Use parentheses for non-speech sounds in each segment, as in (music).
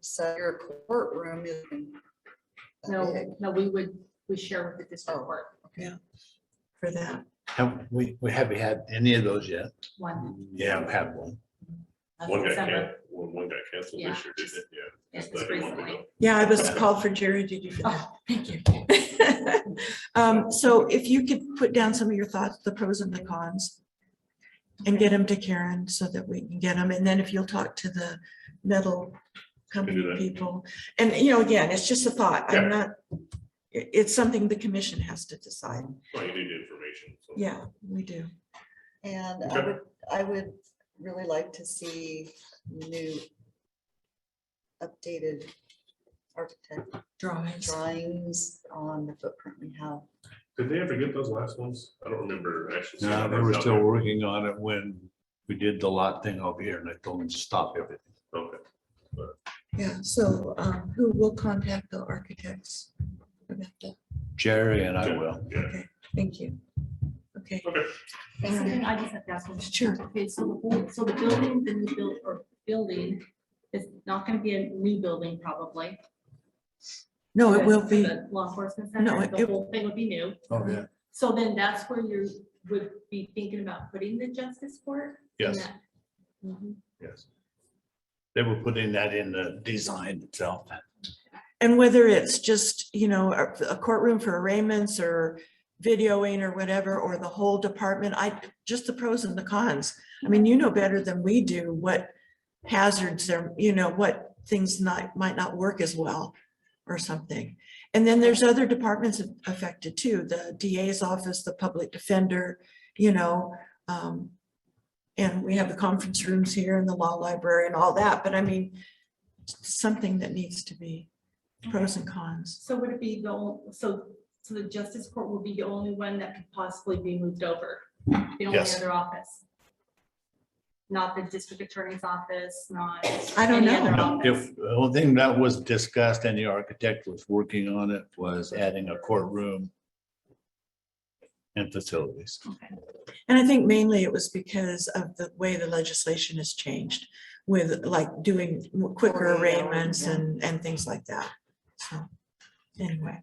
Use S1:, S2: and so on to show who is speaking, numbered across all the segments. S1: So your courtroom is. that big
S2: No, no, we would, we share with the district
S1: Oh.
S2: court
S1: For that.
S3: Have we, we have we had any of those yet?
S2: one.
S3: Yeah, I've had one.
S2: of
S4: One got canceled,
S2: December.
S4: one, one got canceled
S2: Yeah,
S4: this year, didn't it? Yeah.
S2: Yeah,
S4: just
S2: just
S4: that one we
S2: recently.
S4: know.
S1: Yeah, I was called for jury duty for that.
S2: Oh, thank you.
S1: (laughs) Um, so if you could put down some of your thoughts, the pros and the cons. And get them to Karen so that we can get them. And then if you'll talk to the metal company
S4: that.
S1: people. And, you know, again, it's just a thought.
S4: Yeah.
S1: I'm not, it- it's something the commission has to decide.
S4: Well, you need information. so.
S1: Yeah, we do.
S5: And I
S4: Okay.
S5: would, I would really like to see new updated architect
S1: Drawings.
S5: drawings on the footprint we have.
S4: Did they ever get those last ones? I don't remember actually. seeing
S3: No, they
S4: those
S3: were
S4: out
S3: still
S4: there.
S3: working on it when we did the lot thing over here and I told them to stop everything.
S4: Okay,
S1: Yeah, so um, who will contact the architects? about that?
S3: Jerry and I will.
S4: yeah.
S1: Thank you. Okay,
S2: Something I just have to ask. one.
S1: Sure.
S2: Okay, so the, whole- so the building, the new build, or building is not gonna be a new building probably.
S1: no, it will
S2: because
S1: be,
S2: the Law enforcement
S1: No,
S2: center,
S1: it-
S2: the whole thing would be new.
S3: Oh, yeah.
S2: So then that's where you would be thinking about putting the justice court? in
S3: Yes,
S2: that- Mhm.
S3: yes. They were putting that in the design itself.
S1: and whether it's just, you know, a a courtroom for arraignments or videoing or whatever, or the whole department, I, just the pros and the cons. I mean, you know better than we do what hazards there, you know, what things not, might not work as well or something. And then there's other departments affected too, the DA's office, the public defender, you know, um, and we have the conference rooms here and the law library and all that, but I mean, something that needs to be pros and cons.
S2: So would it be the, ol- so, so the justice court would be the only one that could possibly be moved over? The only
S3: Yes.
S2: other office? Not the district attorney's office, not.
S1: I don't
S2: any other
S1: know.
S3: No,
S2: office.
S3: If, the only thing that was discussed and the architect was working on it was adding a courtroom and facilities.
S2: Okay.
S1: And I think mainly it was because of the way the legislation has changed with like doing quicker
S5: Forty-eight hours,
S1: arraignments
S5: yeah.
S1: and, and things like that. So anyway,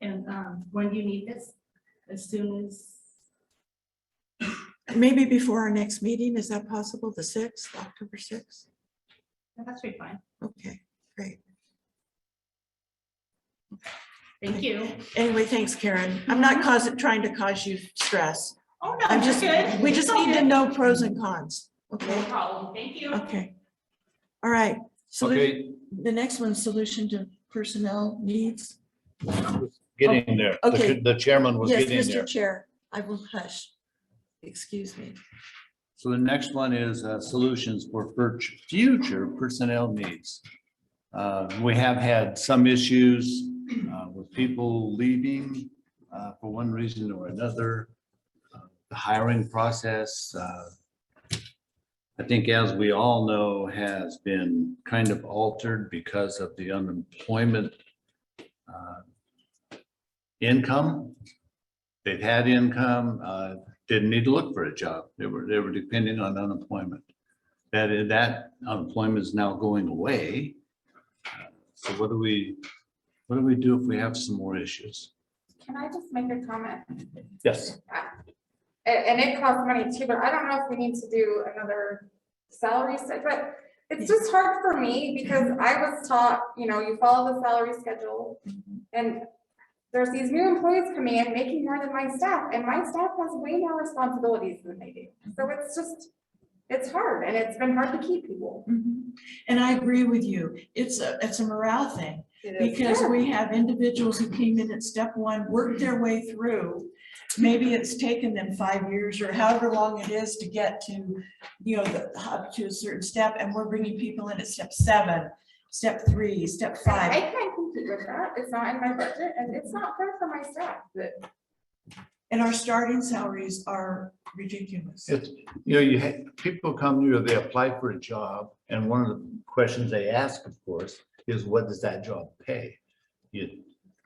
S2: And, um, when do you need this? As soon as,
S1: maybe before our next meeting, is that possible? The sixth, October sixth?
S2: that's pretty fine.
S1: Okay, great.
S2: Thank you. Mm-hmm.
S1: Anyway, thanks Karen. I'm not causing, trying to cause you stress.
S2: Oh, no,
S1: I'm
S2: you're
S1: just,
S2: good.
S1: we just
S2: It's all
S1: need to
S2: good.
S1: know pros and cons.
S2: No
S1: Okay,
S2: problem. Thank you.
S1: okay. All right. So the
S3: Okay,
S1: the next one's solution to personnel needs.
S3: getting there. The-
S1: oh, Okay.
S3: The chairman was
S1: Yes,
S3: getting there.
S1: Mr. Chair, I will hush. Excuse me.
S3: So the next one is uh, solutions for fur- future personnel needs. Uh, We have had some issues uh, with people leaving uh, for one reason or another. Uh, The hiring process, uh, I think as we all know, has been kind of altered because of the unemployment uh, income. They've had income, uh, didn't need to look for a job. They were, they were depending on unemployment. That, is- that unemployment is now going away. So what do we, what do we do if we have some more issues?
S6: Can I just make a comment?
S3: Yes.
S6: And, and it costs money too, but I don't know if we need to do another salary set, but it's just hard for me because I was taught, you know, you follow the salary schedule. And there's these new employees coming in, making more than my staff, and my staff has way more responsibilities than they do. So it's just, it's hard and it's been hard to keep people.
S1: Mm-hmm. And I agree with you. It's a, it's a morale thing
S5: It
S1: because we have individuals who came in at step one, worked their way through. Maybe it's taken them five years or however long it is to get to, you know, the- up to a certain step. And we're bringing people in at step seven, step three, step
S6: I
S1: five.
S6: can't compete with that. It's not in my budget and it's not fair for my staff that
S1: And our starting salaries are ridiculous.
S3: It's, you know, you, ha- people come here, they apply for a job, and one of the questions they ask, of course, is what does that job pay? You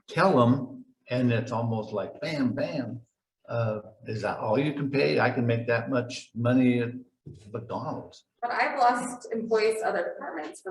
S3: tell them, and it's almost like bam, bam. uh, Is that all you can pay? I can make that much money at McDonald's.
S6: But I've lost employees to other departments for that.